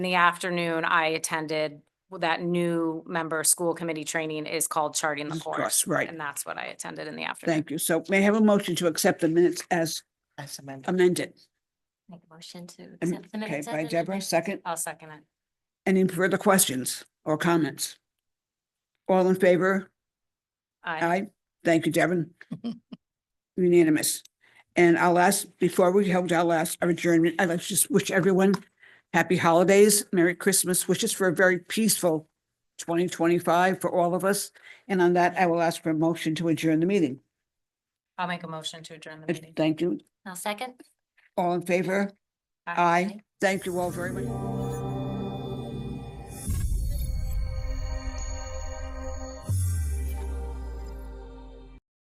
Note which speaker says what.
Speaker 1: In the afternoon, I attended that new member school committee training is called Charting the
Speaker 2: Of
Speaker 1: Course.
Speaker 2: course, right.
Speaker 1: And that's what I attended in the afternoon.
Speaker 2: Thank you. So may I have a motion to accept the minutes as
Speaker 3: As amended.
Speaker 2: amended?
Speaker 4: Make a motion to
Speaker 2: Am-
Speaker 4: accept the
Speaker 2: Okay,
Speaker 4: minutes. as
Speaker 2: by Deborah,
Speaker 4: amended.
Speaker 2: second.
Speaker 1: I'll second it.
Speaker 2: Any further questions or comments? All in favor?
Speaker 1: Aye.
Speaker 2: Aye. Thank you, Devon. Unanimous. And I'll ask, before we hold our last adjournment, I'd like to just wish everyone happy holidays, Merry Christmas, wishes for a very peaceful twenty twenty-five for all of us. And on that, I will ask for a motion to adjourn the meeting.
Speaker 1: I'll make a motion to adjourn the meeting.
Speaker 2: Thank you.
Speaker 4: I'll second.
Speaker 2: All in favor?
Speaker 1: Aye.
Speaker 2: Aye. Thank you all very much.